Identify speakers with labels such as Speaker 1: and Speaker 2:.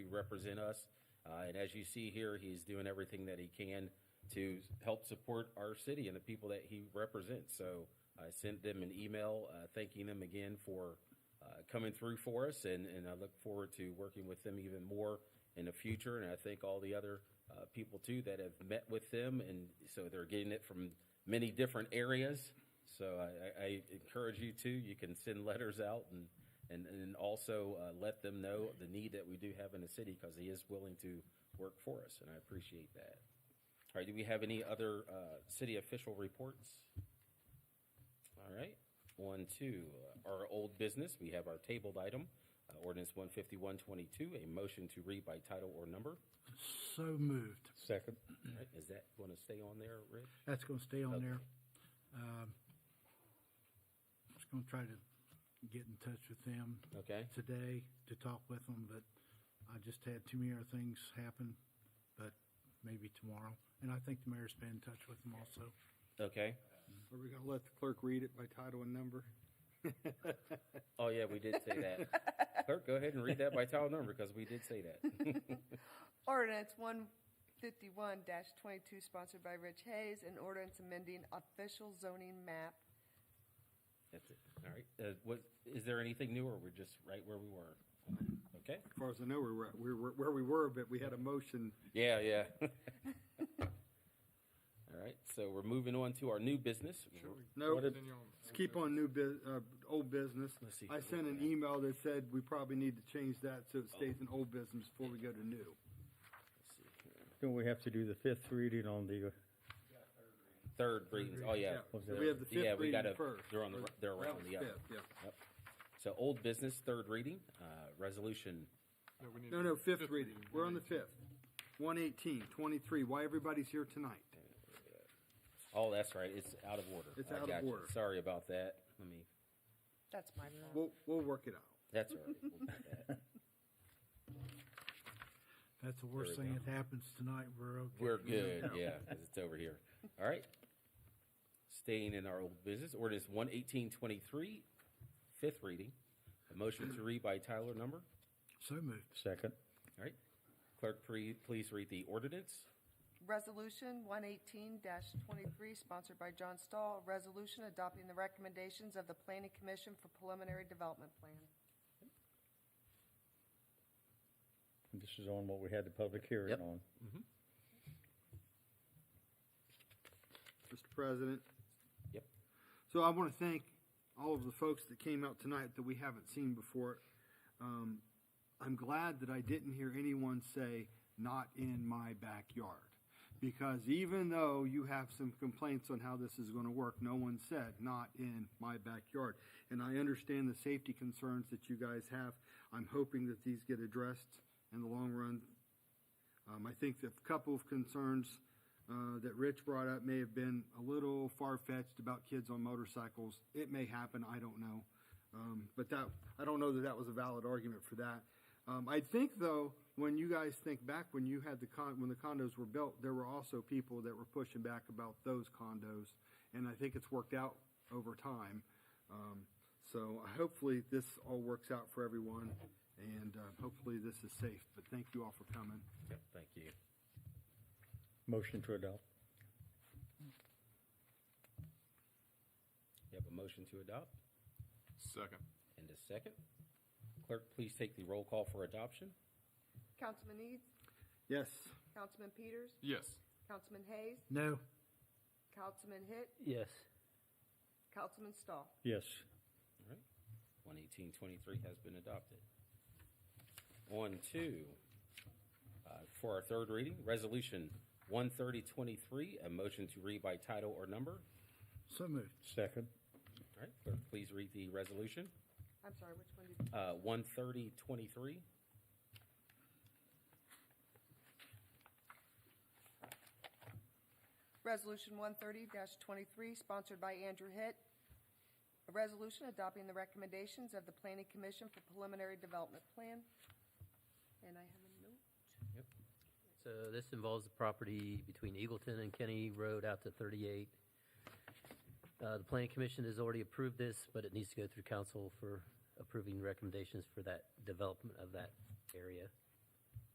Speaker 1: represent us. Uh, And as you see here, he's doing everything that he can to help support our city and the people that he represents. So I sent them an email uh, thanking them again for uh, coming through for us, and, and I look forward to working with them even more in the future. And I thank all the other uh, people too that have met with them, and so they're getting it from many different areas. So I, I, I encourage you to. You can send letters out and and, and also uh, let them know the need that we do have in the city because he is willing to work for us, and I appreciate that. All right, do we have any other uh, city official reports? All right, on to uh, our old business, we have our tabled item, uh, ordinance one fifty-one twenty-two, a motion to read by title or number.
Speaker 2: So moved.
Speaker 3: Second.
Speaker 1: All right, Is that going to stay on there, Rich?
Speaker 2: That's gonna stay on there.
Speaker 1: Okay.
Speaker 2: Um, Just gonna try to get in touch with them
Speaker 1: Okay,
Speaker 2: today to talk with them, but I just had too many other things happen, but maybe tomorrow. And I think the mayor's been in touch with them also.
Speaker 1: okay.
Speaker 4: Are we gonna let the clerk read it by title and number?
Speaker 1: Oh, yeah, we did say that. Clerk, go ahead and read that by title number because we did say that.
Speaker 5: Ordinance one fifty-one twenty-two sponsored by Rich Hayes, an ordinance amending official zoning map.
Speaker 1: That's it. All right. Uh, what, is there anything new or we're just right where we were? Okay.
Speaker 4: As far as I know, we were, we were where we were, but we had a motion.
Speaker 1: Yeah, yeah. All right. So we're moving on to our new business.
Speaker 4: No,
Speaker 1: What did-
Speaker 4: let's keep on new bus, uh, old business.
Speaker 1: Let's see.
Speaker 4: I sent an email that said we probably need to change that so it stays in old business before we go to new.
Speaker 1: let's see here.
Speaker 3: Don't we have to do the fifth reading on the,
Speaker 1: Third readings. Oh, yeah.
Speaker 3: reading.
Speaker 4: So we have the
Speaker 1: Yeah,
Speaker 4: fifth
Speaker 1: we
Speaker 4: reading
Speaker 1: gotta-
Speaker 4: first.
Speaker 1: They're on the, they're
Speaker 4: That
Speaker 1: around
Speaker 4: was
Speaker 1: the other.
Speaker 4: fifth, yeah.
Speaker 1: So old business, third reading, uh, resolution.
Speaker 4: No, no, fifth reading. We're on the fifth. One eighteen, twenty-three. Why everybody's here tonight?
Speaker 1: Oh, that's right. It's out of order.
Speaker 4: It's
Speaker 1: I
Speaker 4: out of
Speaker 1: got you.
Speaker 4: order.
Speaker 1: Sorry about that. Let me,
Speaker 5: That's my fault.
Speaker 4: We'll, we'll work it out.
Speaker 1: that's all right. We'll do that.
Speaker 2: That's the worst
Speaker 1: There we
Speaker 2: thing
Speaker 1: go.
Speaker 2: that happens tonight. We're okay.
Speaker 1: We're good, yeah, 'cause it's over here. All right. Staying in our old business, ordinance one eighteen twenty-three, fifth reading. A motion to read by Tyler number.
Speaker 2: So moved.
Speaker 3: second?
Speaker 1: All right. Clerk, pre- please read the ordinance.
Speaker 5: Resolution one eighteen twenty-three sponsored by John Stahl, a resolution adopting the recommendations of the planning commission for preliminary development plan.
Speaker 3: This is on what we had the public hearing
Speaker 1: Yep.
Speaker 3: on.
Speaker 4: Mr. President.
Speaker 1: Yep.
Speaker 4: So I want to thank all of the folks that came out tonight that we haven't seen before. Um, I'm glad that I didn't hear anyone say, not in my backyard. Because even though you have some complaints on how this is going to work, no one said, not in my backyard. And I understand the safety concerns that you guys have. I'm hoping that these get addressed in the long run um, I think the couple of concerns uh, that Rich brought up may have been a little far fetched about kids on motorcycles. It may happen, I don't know. Um, but that, I don't know that that was a valid argument for that. Um, I think though, when you guys think back, when you had the con, when the condos were built, there were also people that were pushing back about those condos. And I think it's worked out over time. Um, so hopefully this all works out for everyone and uh, hopefully this is safe. But thank you all for coming.
Speaker 1: Yep, Thank you.
Speaker 3: Motion to adopt.
Speaker 1: You have a motion to adopt
Speaker 6: Second.
Speaker 1: and a second. Clerk, please take the roll call for adoption.
Speaker 5: Councilman Eads,
Speaker 4: Yes.
Speaker 5: Councilman Peters,
Speaker 6: Yes.
Speaker 5: Councilman Hayes,
Speaker 2: No,
Speaker 5: Councilman Hitt,
Speaker 3: Yes.
Speaker 5: Councilman Stahl.
Speaker 3: Yes.
Speaker 1: All right. One eighteen twenty-three has been adopted. On to, uh, for our third reading, resolution one thirty twenty-three, a motion to read by title or number.
Speaker 2: so moved.
Speaker 3: Second.
Speaker 1: All right, clerk, please read the resolution,
Speaker 5: I'm sorry, which one did,
Speaker 1: uh, one thirty twenty-three.
Speaker 5: Resolution one thirty twenty-three sponsored by Andrew Hitt. A resolution adopting the recommendations of the planning commission for preliminary development plan. And I have a note.
Speaker 7: So this involves the property between Eagleton and Kenny Road out to 38. Uh, The planning commission has already approved this, but it needs to go through council for approving recommendations for that development of that area.